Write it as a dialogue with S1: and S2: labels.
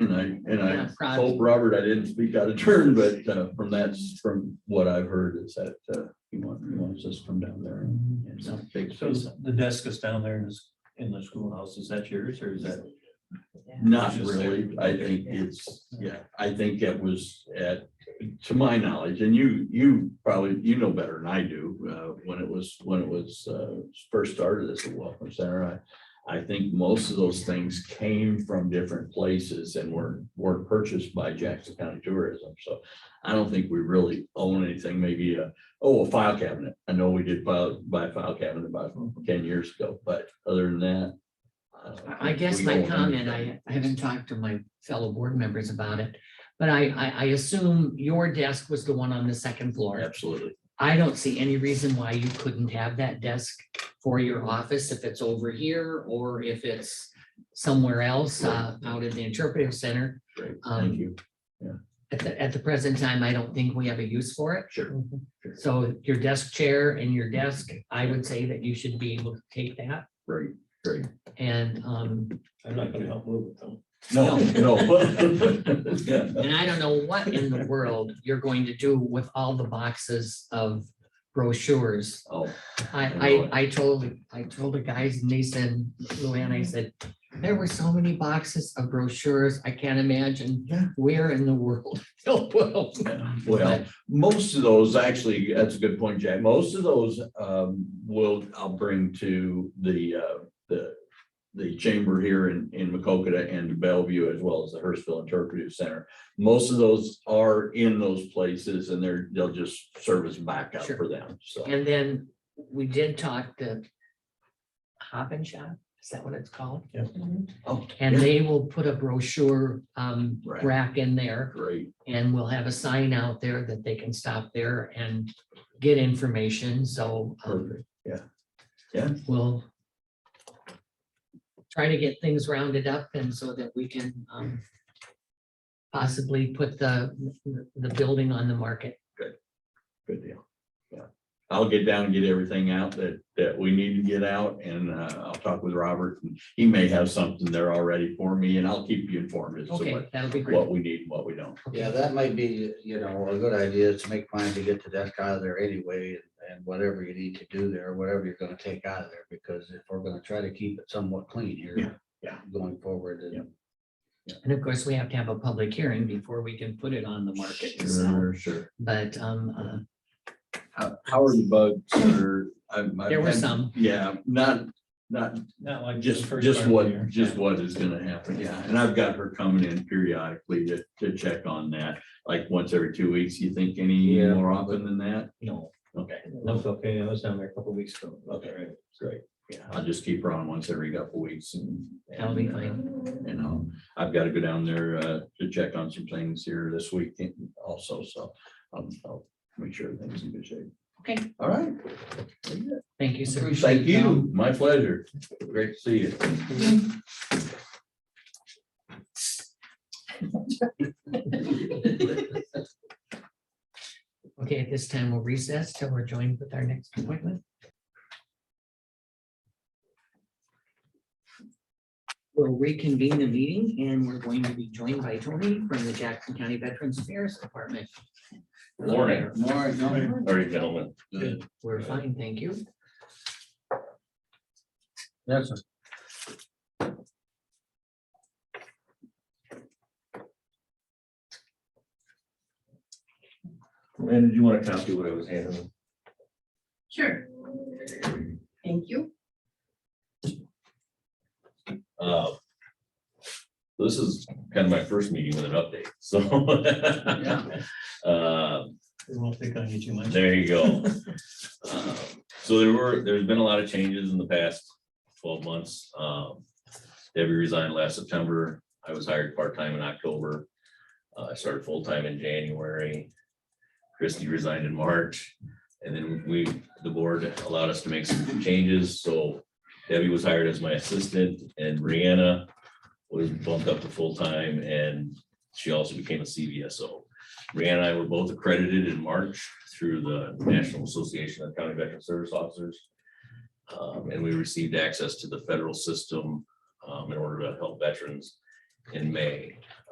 S1: And I, and
S2: Yeah,
S1: I
S2: Rod.
S1: hope, Robert, I didn't speak out of turn, but uh, from that, from what I've heard is that uh, he wants, he wants us from down there. and- and not take
S3: So
S1: space.
S3: the desk is down there in this, in the schoolhouse, is that yours or is that?
S1: Not really. I think it's, yeah, I think it was at, to my knowledge, and you, you probably, you know better than I do. uh, When it was, when it was uh, first started as a welcome center, I, I think most of those things came from different places and were, were purchased by Jackson County Tourism. So I don't think we really own anything, maybe a, oh, a file cabinet. I know we did file, buy a file cabinet about ten years ago, but other than that. I don't
S2: I I
S1: think
S2: guess
S1: we
S2: my
S1: own
S2: comment,
S1: anything.
S2: I I haven't talked to my fellow board members about it, but I, I, I assume your desk was the one on the second floor.
S1: Absolutely.
S2: I don't see any reason why you couldn't have that desk for your office if it's over here or if it's somewhere else, uh, out at the interpretive center.
S1: Great.
S2: Um,
S1: Thank you.
S2: At the, at the present time, I don't think we have a use for it.
S1: Sure.
S2: So your desk chair and your desk, I would say that you should be able to take that
S1: Great, great.
S2: and, um,
S3: I'm not gonna help move it though.
S1: No, no. Yeah.
S2: And I don't know what in the world you're going to do with all the boxes of brochures.
S1: Oh,
S2: I, I, I told, I told the guys and they said, Luann, I said, there were so many boxes of brochures. I can't imagine where in the world they'll put them.
S1: yeah. well, most of those, actually, that's a good point, Jack. Most of those um will, I'll bring to the uh, the the chamber here in in Macokota and Bellevue, as well as the Hurstville Interpretive Center. Most of those are in those places and they're, they'll just serve as backup
S2: Sure.
S1: for them, so.
S2: And then we did talk to Hop and Shop, is that what it's called?
S3: Yeah.
S1: Oh,
S2: And
S1: yeah.
S2: they will put a brochure, um,
S1: Right.
S2: rack in there.
S1: Great,
S2: And we'll have a sign out there that they can stop there and get information, so. um,
S1: perfect. Yeah.
S2: We'll. Try to get things rounded up and so that we can, um. Possibly put the, the building on the market.
S1: Good deal. Yeah, I'll get down and get everything out that, that we need to get out and uh, I'll talk with Robert. and He may have something there already for me and I'll keep you informed as to
S2: Okay,
S1: what,
S2: that'll be
S1: what
S2: great.
S1: we need and what we don't.
S4: Yeah, that might be, you know, a good idea is to make mine to get the desk out of there anyway, and whatever you need to do there, whatever you're gonna take out of there, because if we're gonna try to keep it somewhat clean
S1: Yeah,
S4: here.
S1: yeah.
S4: Going forward,
S1: Yeah.
S4: and
S2: And of course, we have to have a public hearing before we can put it on the market. So,
S1: Sure, sure.
S2: But, um,
S1: How, how are the bugs or? I'm-
S2: uh,
S1: I've
S2: there were
S1: had-
S2: some.
S1: Yeah, not, not
S3: Not like. the
S1: Just,
S3: first
S1: just
S3: part of the year.
S1: what, just what is gonna happen, yeah, and I've got her coming in periodically to, to check on that, like once every two weeks, you think any
S4: Yeah.
S1: more often than that?
S3: No,
S1: Okay,
S3: that's okay. I was down there a couple weeks ago.
S1: Okay.
S3: Right.
S1: great, yeah, I'll just keep her on once every couple weeks and.
S2: That'll be
S1: and, uh,
S2: fine.
S1: You know, I've gotta go down there, uh, to check on some things here this week also, so, um, I'll make sure things in good shape.
S2: Okay.
S1: All right,
S2: Thank you, sir.
S1: thank you, my pleasure, great to see you.
S2: Okay, at this time, we'll recess till we're joined with our next appointment. We'll reconvene the meeting and we're going to be joined by Tony from the Jackson County Veterans Affairs Department.
S1: Morning.
S4: more, no,
S1: All right, gentlemen.
S2: We're fine, thank you.
S4: that's,
S5: And do you want to copy what I was handing?
S6: Sure. Thank you.
S5: Uh, This is kind of my first meeting with an update, so. Uh,
S3: It won't take on you too much.
S5: There you go. Um, So there were, there's been a lot of changes in the past twelve months. Um, Debbie resigned last September. I was hired part-time in October. Uh, I started full-time in January. Christie resigned in March, and then we, the board allowed us to make some changes, so Debbie was hired as my assistant, and Brianna was bumped up to full-time, and she also became a CVSO. Brianna and I were both accredited in March through the National Association of County Veteran Service Officers. Um, and we received access to the federal system, um, in order to help veterans in May.